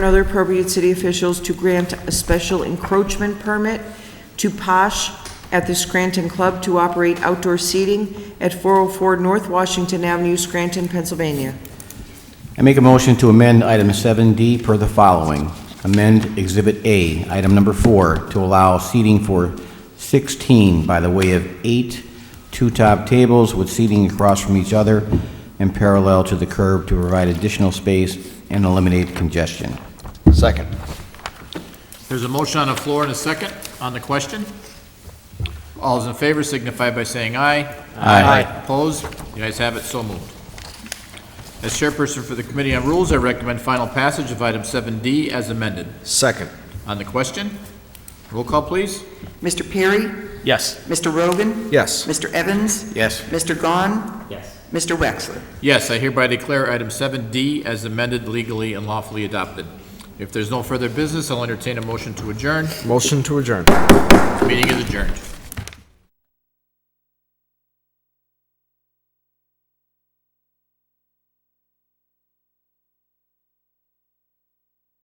and other appropriate city officials to grant a special encroachment permit to Posh at the Scranton Club to operate outdoor seating at 404 North Washington Avenue, Scranton, Pennsylvania. I make a motion to amend item 7D per the following. Amend Exhibit A, item number four, to allow seating for 16 by the way of eight two-top tables with seating across from each other and parallel to the curb to provide additional space and eliminate congestion. Second. There's a motion on the floor and a second on the question. All those in favor signify by saying aye. Aye. Opposed? The ayes have it, so moved. As chairperson for the Committee on Rules, I recommend final passage of item 7D as amended. Second. On the question, roll call, please. Mr. Perry? Yes. Mr. Rogan? Yes. Mr. Evans? Yes. Mr. Gahn? Yes. Mr. Wexler? Yes, I hereby declare item 7D as amended legally and lawfully adopted. If there's no further business, I'll entertain a motion to adjourn. Motion to adjourn. Meeting is adjourned.